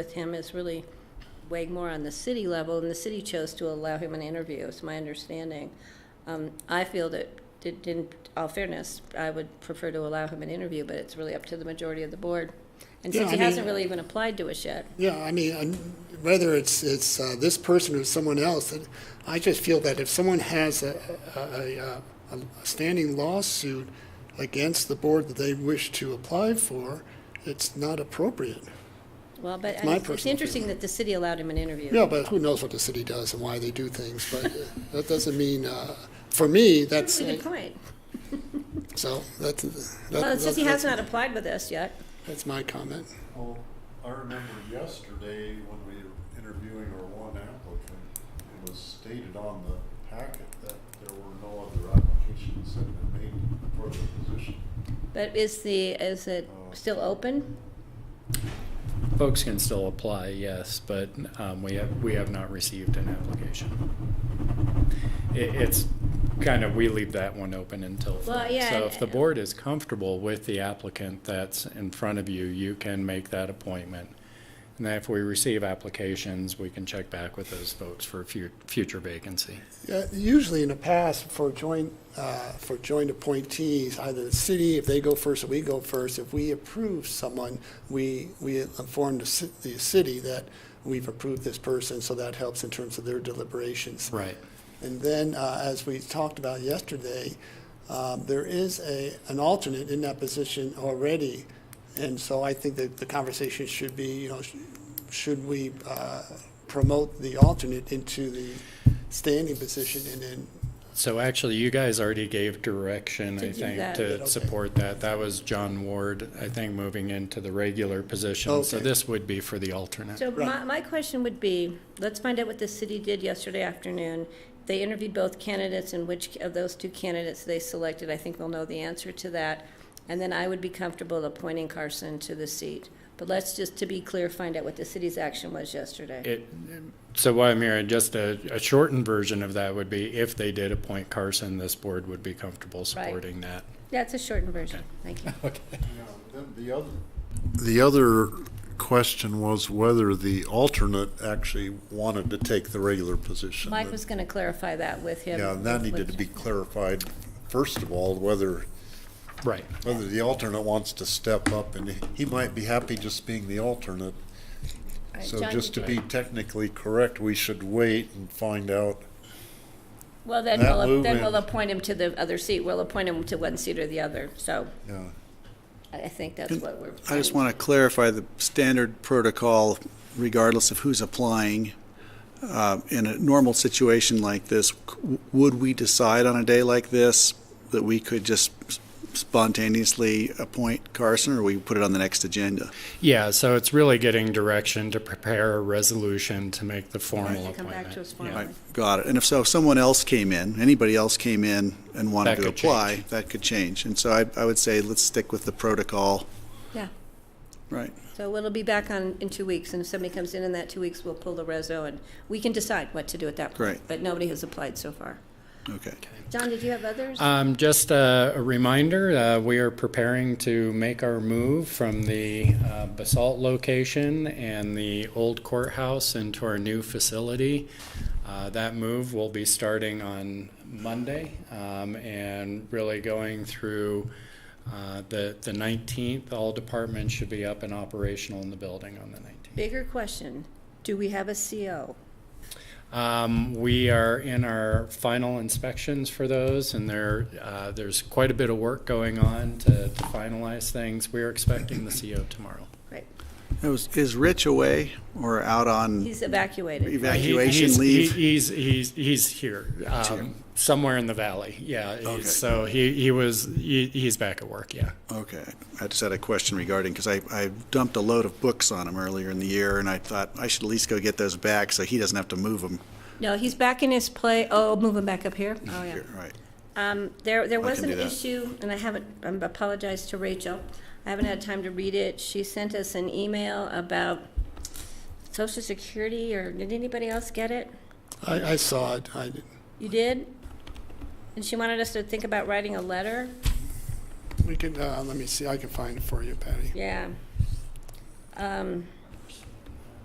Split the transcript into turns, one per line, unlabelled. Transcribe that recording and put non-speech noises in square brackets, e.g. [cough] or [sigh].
with him is really weighing more on the city level, and the city chose to allow him an interview, is my understanding. Um, I feel that, did- in all fairness, I would prefer to allow him an interview, but it's really up to the majority of the board. And
Yeah,
since
I
he hasn't
mean-
really even applied to us yet,
Yeah, I mean, and whether it's, it's uh, this person or someone else, it- I just feel that if someone has a, a, a- a, a standing lawsuit against the board that they wish to apply for, it's not appropriate.
well, but it's-
my
it's
personal
interesting
feeling.
that the city allowed him an interview.
Yeah, but who knows what the city does and why they do things, but uh, that doesn't mean, uh, for me, that's,
That's a good point.
so, that's,
Well, it's
that's,
just he has
that's
not applied with us yet.
that's my comment.
Well, I remember yesterday when we were interviewing our one applicant, it was stated on the packet that there were no other applications that had been made for the position.
But is the, is it still open?
Folks can still apply, yes, but um, we have, we have not received an application. It, it's kind of, we leave that one open until.
Well,
then.
yeah,
So
and-
if the board is comfortable with the applicant that's in front of you, you can make that appointment. And then if we receive applications, we can check back with those folks for a fu- future vacancy.
Yeah, Usually in the past, for joint, uh, for joint appointees, either the city, if they go first or we go first, if we approve someone, we, we inform the ci- the city that we've approved this person, so that helps in terms of their deliberations.
Right.
And then, uh, as we talked about yesterday, um, there is a, an alternate in that position already. And so I think that the conversation should be, you know, sh- should we uh, promote the alternate into the standing position and then,
So actually, you guys already gave direction,
To
I
do
think,
that.
Okay.
to support that. That was John Ward, I think, moving into the regular position. So
Okay.
this would be for the alternate.
So my,
Right.
my question would be, let's find out what the city did yesterday afternoon. They interviewed both candidates and which of those two candidates they selected. I think we'll know the answer to that. And then I would be comfortable appointing Carson to the seat. But let's just, to be clear, find out what the city's action was yesterday.
It, so what I'm hearing, just a, a shortened version of that would be if they did appoint Carson, this board would be comfortable
[laughs]
supporting that.
That's a shortened version. Thank you.
You know, then the other. The other question was whether the alternate actually wanted to take the regular position.
Mike was going to clarify that with him.
Yeah, and that needed to be clarified, first of all, whether
Right.
whether the alternate wants to step up, and he might be happy just being the alternate.
All right,
So
John,
just to be technically correct, we should wait and find out.
Well, then
that
we'll,
move
then
in-
we'll appoint him to the other seat. We'll appoint him to one seat or the other. So
Yeah,
I I think that's what we're.
I just want to clarify the standard protocol, regardless of who's applying. Uh, In a normal situation like this, c- would we decide on a day like this that we could just spontaneously appoint Carson, or we put it on the next agenda?
Yeah, so it's really getting direction to prepare a resolution to make the
Has
formal
to come back to us
appointment. Yeah.
formally.
Got it. And if so, if someone else came in, anybody else came in and wanted
That
to
could
apply, that could change. And so I, I would say, let's stick with the protocol.
Yeah.
Right.
So it'll be back on in two weeks, and if somebody comes in in that two weeks, we'll pull the reso, and we can decide what to do at that point.
Great.
But nobody has applied so far.
Okay.
John, did you have others?
Uh,
Um, just a, a reminder, uh, we are preparing to make our move from the uh, basalt location and the old courthouse into our new facility. Uh, that move will be starting on Monday um, and really going through uh, the, the 19th. All departments should be up and operational in the building on the 19th.
Bigger question, do we have a CO?
Um, we are in our final inspections for those, and there, uh, there's quite a bit of work going on to, to finalize things. We're expecting the CO tomorrow.
Right,
Now, Is is Rich away or out on?
he's evacuated.
He-
Evacuation
he's-
leave?
he- He's, he's, he's here, um, somewhere in the valley, yeah. he's- So he, he was, he, he's back at work, yeah.
Okay, I just had a question regarding, because I, I dumped a load of books on him earlier in the year, and I thought I should at least go get those back so he doesn't have to move them.
No, he's back in his play, oh, move him back up here? Oh, yeah.
Here, Right,
Um, there, there was
can
an
do that.
issue, and I haven't, I apologize to Rachel. I haven't had time to read it. She sent us an email about social security, or did anybody else get it?
I, I saw it, I,
You did? And she wanted us to think about writing a letter?
we can, uh, let me see, I can find it for you, Patty.
Yeah. Um,